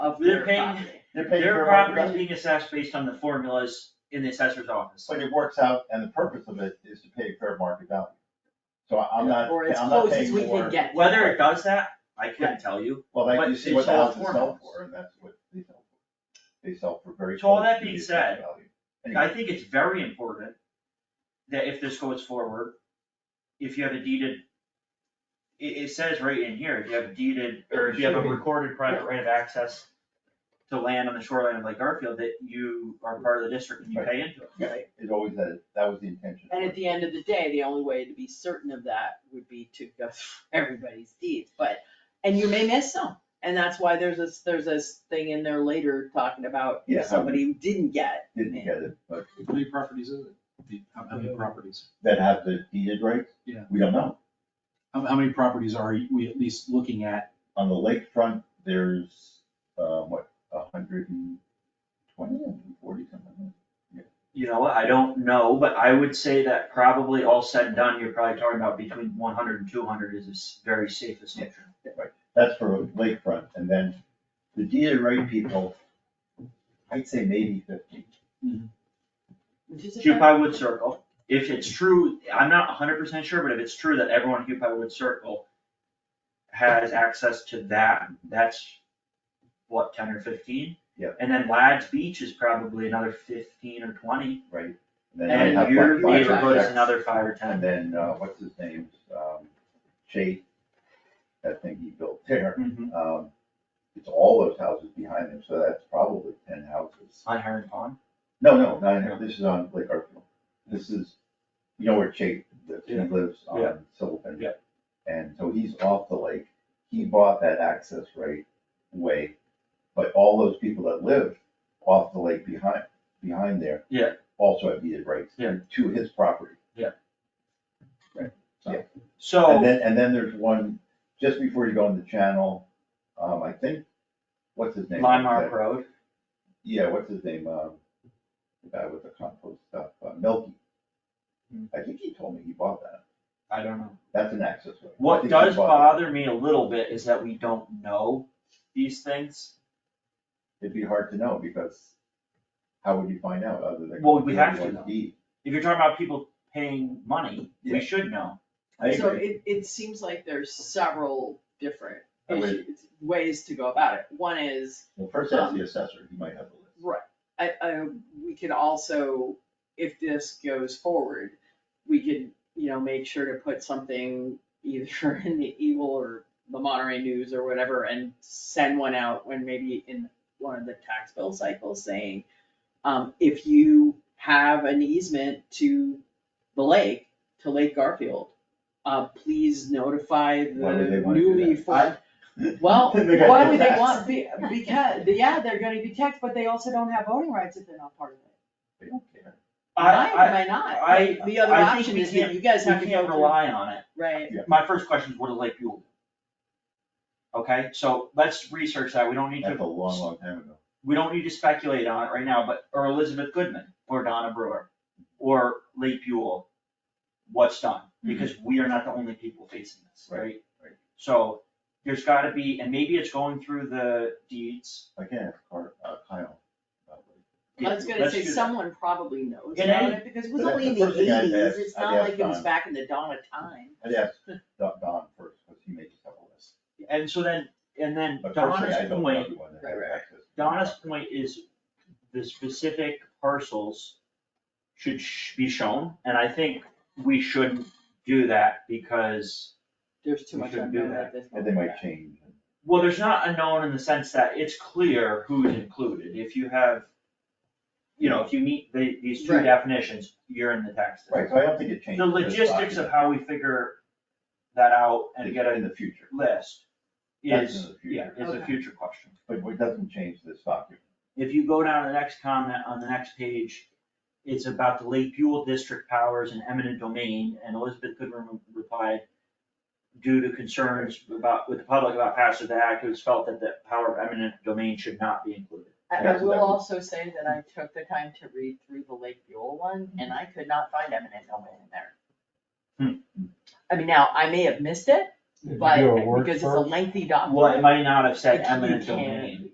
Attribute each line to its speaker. Speaker 1: of
Speaker 2: They're
Speaker 1: their
Speaker 2: paying,
Speaker 1: property.
Speaker 2: they're paying
Speaker 1: Their
Speaker 2: for
Speaker 1: property
Speaker 2: property,
Speaker 1: is being assessed based on the formulas in the assessor's office.
Speaker 2: but it works out, and the purpose of it is to pay fair market value. So I- I'm not,
Speaker 3: Or as
Speaker 2: I'm not
Speaker 3: close as
Speaker 2: paying
Speaker 3: we can
Speaker 2: more,
Speaker 3: get.
Speaker 1: Whether it does that, I couldn't tell you.
Speaker 2: well, like,
Speaker 1: but
Speaker 2: you see
Speaker 1: it's
Speaker 2: what the
Speaker 1: all
Speaker 2: houses sell
Speaker 1: formulas.
Speaker 2: for, and that's what they sell for. They sell for very.
Speaker 1: So all
Speaker 2: close
Speaker 1: that
Speaker 2: to
Speaker 1: being
Speaker 2: the fair
Speaker 1: said,
Speaker 2: value.
Speaker 1: I
Speaker 2: Anyway,
Speaker 1: think it's very important that if this goes forward, if you have a deeded, it, it says right in here, if you have a deeded, or if you have a recorded private right of access to land on the shoreline of Lake Garfield, that you are part of the district and you pay into it.
Speaker 3: Right,
Speaker 2: it always had, that was the intention.
Speaker 3: and at the end of the day, the only way to be certain of that would be to go through everybody's deeds, but, and you may miss some. And that's why there's this, there's this thing in there later talking about
Speaker 2: Yeah,
Speaker 3: if
Speaker 2: how-
Speaker 3: somebody who didn't get,
Speaker 2: Didn't get it, but
Speaker 4: How many properties is it? The- How how many properties?
Speaker 2: that have the deeded rights?
Speaker 4: Yeah.
Speaker 2: We don't know.
Speaker 4: How, how many properties are we at least looking at?
Speaker 2: On the lakefront, there's, uh, what, a hundred and twenty, a hundred and forty, something like that.
Speaker 1: You know what, I don't know, but I would say that probably all said and done, you're probably talking about between 100 and 200 is a s- very safe assumption.
Speaker 2: That's for lakefront, and then the DA rate people, I'd say maybe fifty.
Speaker 3: which is a fair-
Speaker 1: Hupai Wood Circle, if it's true, I'm not hundred percent sure, but if it's true that everyone in Hupai Wood Circle has access to that, that's what, ten or fifteen?
Speaker 2: Yep.
Speaker 1: And then Lad's Beach is probably another fifteen or twenty,
Speaker 2: then they have,
Speaker 1: and
Speaker 2: like,
Speaker 1: your
Speaker 2: five
Speaker 1: neighborhood is
Speaker 2: projects,
Speaker 1: another five or
Speaker 2: And
Speaker 1: ten.
Speaker 2: then, uh, what's his name, um, Chase, that thing he built there,
Speaker 1: Mhm.
Speaker 2: um, it's all those houses behind him, so that's probably ten houses.
Speaker 1: On Heron Pond,
Speaker 2: No, no, not here, this is on Lake Garfield, this is, you know where Chase lives, he
Speaker 4: Yeah.
Speaker 2: lives
Speaker 1: Yeah.
Speaker 2: on Sylvan.
Speaker 4: Yeah.
Speaker 2: And so he's off the lake, he bought that access right way, but all those people that live off the lake behind, behind there.
Speaker 1: Yeah.
Speaker 2: Also have deeded rights
Speaker 1: Yeah.
Speaker 2: to his property. And
Speaker 1: so,
Speaker 2: then, and then there's one, just before you go on the channel, um, I think, what's his name?
Speaker 1: Limemark Road,
Speaker 2: Yeah, what's his name, um, the guy with the compost stuff, uh, Milky.
Speaker 1: Hmm.
Speaker 2: I think he told me he bought that,
Speaker 1: I don't know.
Speaker 2: that's an access road. I
Speaker 1: What
Speaker 2: think he
Speaker 1: does
Speaker 2: bought
Speaker 1: bother me a little bit is that we don't know these things.
Speaker 2: that. It'd be hard to know, because how would you find out other than.
Speaker 1: Well, we
Speaker 2: going
Speaker 1: have to
Speaker 2: everyone's
Speaker 1: know.
Speaker 2: deed?
Speaker 1: If you're talking about people paying money,
Speaker 2: Yeah.
Speaker 1: we should know.
Speaker 2: I
Speaker 3: So
Speaker 2: agree,
Speaker 3: it, it seems like there's several different
Speaker 2: I would-
Speaker 3: issues, ways to go about it. One is
Speaker 2: well, first
Speaker 3: um,
Speaker 2: ask the assessor, he might have a list.
Speaker 3: Right, I, I, we could also, if this goes forward, we could, you know, make sure to put something either in the Eagle or the Monterey News or whatever, and send one out when maybe in one of the tax bill cycles saying, um, if you have an easement to the lake, to Lake Garfield, uh, please notify
Speaker 2: Why would they
Speaker 3: the
Speaker 2: wanna do
Speaker 3: newly
Speaker 2: that?
Speaker 3: formed well,
Speaker 2: They got
Speaker 3: why would they
Speaker 2: taxed.
Speaker 3: want, be- because, yeah, they're gonna be taxed, but they also don't have voting rights if they're not part of it.
Speaker 2: They don't care.
Speaker 3: Why
Speaker 1: I, I,
Speaker 3: am I not?
Speaker 1: I,
Speaker 3: The other
Speaker 1: I think
Speaker 3: option
Speaker 1: we
Speaker 3: is that
Speaker 1: can't-
Speaker 3: you guys have to
Speaker 1: we
Speaker 3: go
Speaker 1: can't
Speaker 3: through,
Speaker 1: rely on it.
Speaker 3: right,
Speaker 1: My first question is, what do Lake Buell do? Okay, so let's research that, we don't need
Speaker 2: That's a
Speaker 1: to,
Speaker 2: long, long time ago.
Speaker 1: we don't need to speculate on it right now, but, or Elizabeth Goodman, or Donna Brewer, or Lake Buell, what's done?
Speaker 3: Mm-hmm.
Speaker 1: Because we are not the only people facing this,
Speaker 2: Right,
Speaker 1: right?
Speaker 2: right.
Speaker 1: So, there's gotta be, and maybe it's going through the deeds,
Speaker 2: I can't ask Car- uh, Kyle. about it.
Speaker 3: I was gonna
Speaker 1: Let's
Speaker 3: say,
Speaker 1: do that.
Speaker 3: someone probably knows
Speaker 1: In
Speaker 3: about
Speaker 1: any-
Speaker 3: it, because it was
Speaker 2: But
Speaker 3: only in
Speaker 2: that's
Speaker 3: the
Speaker 2: the first thing I'd
Speaker 3: eighties,
Speaker 2: ask-
Speaker 3: it's
Speaker 2: I'd
Speaker 3: not
Speaker 2: ask
Speaker 3: like it was
Speaker 2: Don.
Speaker 3: back in the dawn of time.
Speaker 2: I'd ask Don, Don first, because he may just have a list,
Speaker 1: And so then, and then
Speaker 2: but personally, I
Speaker 1: Donna's
Speaker 2: don't know
Speaker 1: point,
Speaker 2: everyone that
Speaker 3: Right,
Speaker 2: has
Speaker 3: right.
Speaker 2: access. to the
Speaker 1: Donna's
Speaker 2: property.
Speaker 1: point is the specific parcels should sh- be shown, and I think we shouldn't do that because,
Speaker 3: There's too
Speaker 1: We
Speaker 3: much
Speaker 1: shouldn't do
Speaker 3: unknown
Speaker 1: that.
Speaker 3: at this
Speaker 2: And
Speaker 3: point.
Speaker 2: they might change.
Speaker 1: well, there's not a known in the sense that it's clear who's included. If you have, you know, if you meet the, these two
Speaker 3: Right.
Speaker 1: definitions, you're in the text.
Speaker 2: Right, so I don't think it changes.
Speaker 1: The logistics of how we figure that out and get
Speaker 2: In
Speaker 1: a
Speaker 2: the future,
Speaker 1: list
Speaker 2: That's in
Speaker 1: is,
Speaker 2: the future.
Speaker 1: yeah, is a
Speaker 3: Okay.
Speaker 1: future question.
Speaker 2: but it doesn't change this document.
Speaker 1: If you go down to the next comment on the next page, it's about the Lake Buell District powers and eminent domain, and Elizabeth Goodwin replied, due to concerns about, with the public about passage of the act, it was felt that the power of eminent domain should not be included.
Speaker 3: I, I
Speaker 2: That's
Speaker 3: will
Speaker 2: that one.
Speaker 3: also say that I took the time to read through the Lake Buell one, and I could not find eminent domain in there.
Speaker 1: Hmm.
Speaker 3: I mean, now, I may have missed it, but, because it's a lengthy document.
Speaker 1: Well, it might not have said
Speaker 3: But you
Speaker 1: eminent
Speaker 3: can't-
Speaker 1: domain.